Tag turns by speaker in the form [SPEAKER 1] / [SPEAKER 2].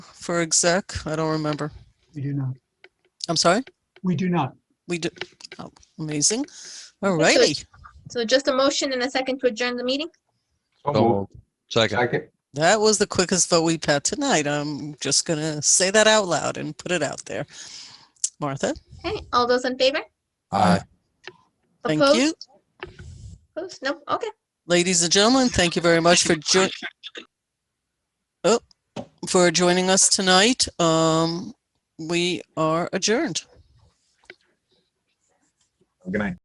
[SPEAKER 1] for exec? I don't remember.
[SPEAKER 2] We do not.
[SPEAKER 1] I'm sorry?
[SPEAKER 2] We do not.
[SPEAKER 1] We do, oh, amazing. All
[SPEAKER 3] Okay, so
[SPEAKER 1] righty.
[SPEAKER 3] So just a motion and a second to adjourn the meeting?
[SPEAKER 4] So
[SPEAKER 5] So
[SPEAKER 4] moved.
[SPEAKER 5] moved. Second.
[SPEAKER 4] Second.
[SPEAKER 1] That was the quickest vote we've had tonight. I'm just gonna say that out loud and put it out there. Martha,
[SPEAKER 3] Okay, all those in favor?
[SPEAKER 5] Aye.
[SPEAKER 1] thank
[SPEAKER 3] Opposed?
[SPEAKER 1] you.
[SPEAKER 3] Opposed? No, okay.
[SPEAKER 1] Ladies and gentlemen, thank you very much for joining. Oh, for joining us tonight. Um, we are adjourned.
[SPEAKER 4] Good night.